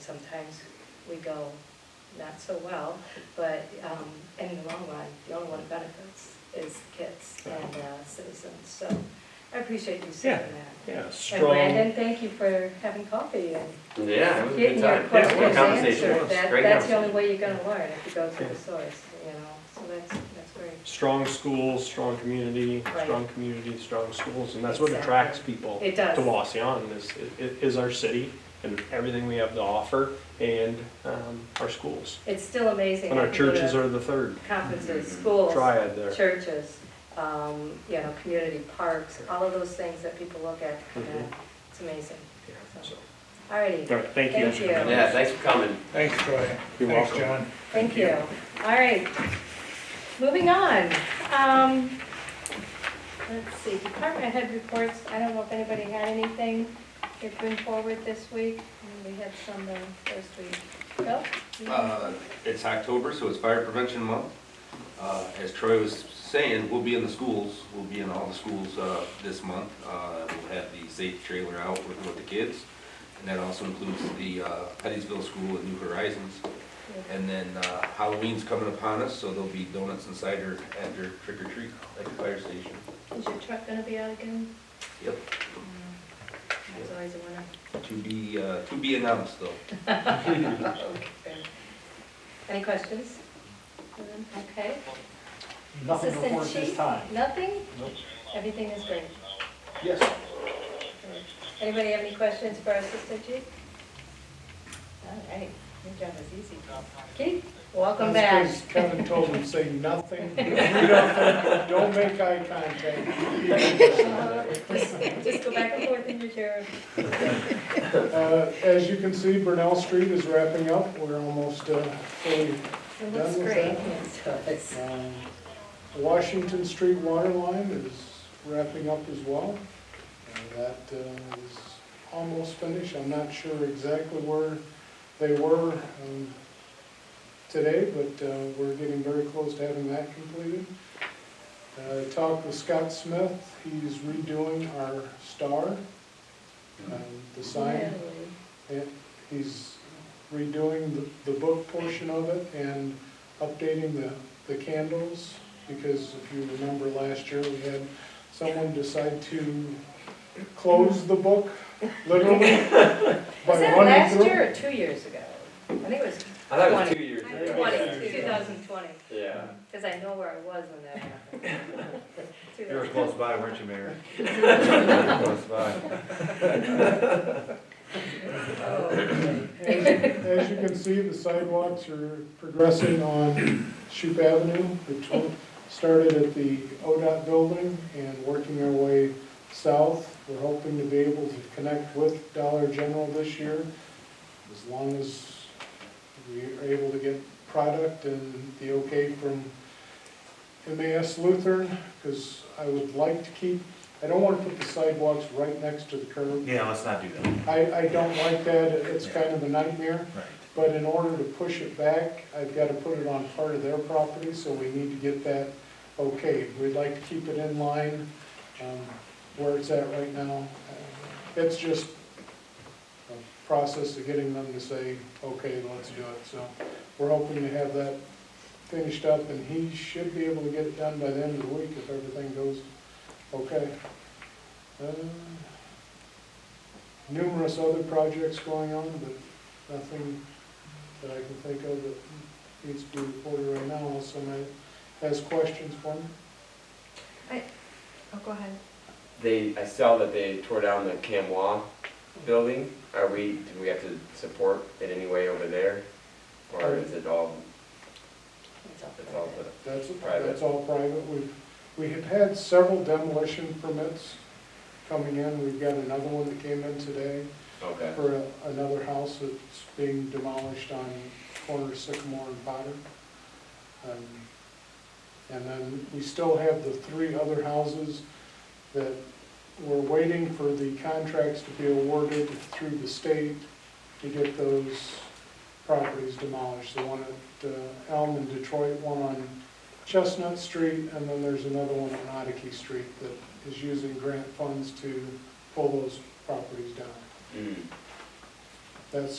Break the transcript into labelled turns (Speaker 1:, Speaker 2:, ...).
Speaker 1: sometimes we go not so well, but um, in the long run, the only one who benefits is kids and uh, citizens. So I appreciate you saying
Speaker 2: Yeah.
Speaker 1: that.
Speaker 2: Yeah,
Speaker 1: And
Speaker 2: strong,
Speaker 1: Brandon, thank you for having coffee and
Speaker 3: Yeah, it was a
Speaker 1: getting
Speaker 3: good
Speaker 1: your
Speaker 3: time. Yeah, what a
Speaker 1: questions
Speaker 3: conversation.
Speaker 1: answered. That-
Speaker 3: Great
Speaker 1: That's the
Speaker 3: conversation.
Speaker 1: only way you're gonna learn, if you go to
Speaker 2: Yeah.
Speaker 1: the source, you know, so that's, that's great.
Speaker 2: strong schools, strong community,
Speaker 1: Right.
Speaker 2: strong community, strong schools, and that's what
Speaker 1: Exactly.
Speaker 2: attracts people
Speaker 1: It
Speaker 2: to
Speaker 1: does,
Speaker 2: Waseon is, i- is our city and everything we have to offer and um, our schools.
Speaker 1: it's still amazing.
Speaker 2: And
Speaker 1: I
Speaker 2: our
Speaker 1: can go to
Speaker 2: churches are the third
Speaker 1: Conferences,
Speaker 3: Mhm.
Speaker 1: schools,
Speaker 2: triad there.
Speaker 1: churches, um, you know, community parks, all of those things that people look at, and
Speaker 2: Mhm.
Speaker 1: it's amazing.
Speaker 2: Yeah, so.
Speaker 1: Alrighty,
Speaker 2: All right, thank you.
Speaker 1: Thank you.
Speaker 3: Yeah, thanks for coming.
Speaker 4: Thanks, Troy.
Speaker 2: You're
Speaker 4: Thanks,
Speaker 2: welcome.
Speaker 4: John.
Speaker 1: thank you. Alright, moving on. Um, let's see, department head reports, I don't know if anybody had anything to bring forward this week. And We had some the first week. Bill? you-
Speaker 5: Uh, It's October, so it's fire prevention month. Uh, As Troy was saying, we'll be in the schools, we'll be in all the schools uh, this month. Uh, We'll have the safe trailer out working with the kids, and that also includes the uh, Pettysville School and New Horizons. And then uh, Halloween's coming upon us, so there'll be donuts and cider at your trick or treat at the fire station.
Speaker 1: Is your truck gonna be out again?
Speaker 5: Yep,
Speaker 1: That's always a winner.
Speaker 5: to be, uh, to be announced though.
Speaker 1: Okay. Any questions? Okay,
Speaker 4: Nothing to
Speaker 1: Assistant
Speaker 4: report this
Speaker 1: Chief?
Speaker 4: time.
Speaker 1: nothing?
Speaker 4: Nope.
Speaker 1: Everything is great.
Speaker 4: Yes.
Speaker 1: Anybody have any questions for our assistant chief? All right, your job is easy. Keith, welcome back.
Speaker 4: That's 'cause Kevin told him, say nothing, do nothing, don't make eye contact.
Speaker 1: Just just go back and forth in your chair.
Speaker 4: Uh, As you can see, Brunel Street is wrapping up, we're almost uh, fully
Speaker 1: It looks
Speaker 4: Done with
Speaker 1: great.
Speaker 4: that?
Speaker 1: Yes, it does.
Speaker 4: Um, Washington Street water line is wrapping up as well. And that uh, is almost finished. I'm not sure exactly where they were um, today, but uh, we're getting very close to having that completed. Uh, I Talked with Scott Smith, he's redoing our star, um, the sign.
Speaker 1: Really.
Speaker 4: It- He's redoing the- the book portion of it and updating the, the candles, because if you remember last year, we had someone decide to close the book, literally.
Speaker 1: Was
Speaker 4: by
Speaker 1: that
Speaker 4: running
Speaker 1: last
Speaker 4: through.
Speaker 1: year or two years ago? I think it was
Speaker 3: I thought it was two years. ago.
Speaker 1: 20, 2020,
Speaker 3: Yeah.
Speaker 1: because I know where I was when that happened.
Speaker 6: You were close by, weren't you, Mayor? Close by.
Speaker 1: Oh,
Speaker 4: As as you can see, the sidewalks are progressing on Shoup Avenue, which we started at the ODOT building and working our way south. We're hoping to be able to connect with Dollar General this year, as long as we are able to get product and the okay from MAS Lutheran, because I would like to keep, I don't want to put the sidewalks right next to the curb.
Speaker 6: Yeah, let's not do that.
Speaker 4: I, I don't like that, it's kind of a nightmare.
Speaker 6: Right.
Speaker 4: But in order to push it back, I've got to put it on part of their property, so we need to get that okay. We'd like to keep it in line um, where it's at right now. Uh, It's just a process of getting them to say, okay, let's do it. So we're hoping to have that finished up, and he should be able to get it done by the end of the week if everything goes okay. Uh, Numerous other projects going on, but nothing that I can think of that needs to be reported right now, unless somebody has questions for me.
Speaker 1: Oh, go ahead.
Speaker 3: They, I saw that they tore down the Camwa building. Are we, do we have to support it anyway over there? Or is it all,
Speaker 1: It's all
Speaker 3: it's all the?
Speaker 4: That's,
Speaker 3: Private.
Speaker 4: that's all private. We've, we have had several demolition permits coming in. We've got another one that came in today
Speaker 3: Okay.
Speaker 4: for a- another house that's being demolished on corner of Sycamore and Potter. Um, And then we still have the three other houses that we're waiting for the contracts to be awarded through the state to get those properties demolished. The one at uh, Elm in Detroit, one on Chestnut Street, and then there's another one on Oddie Street that is using grant funds to pull those properties down.
Speaker 3: Mm.
Speaker 4: That's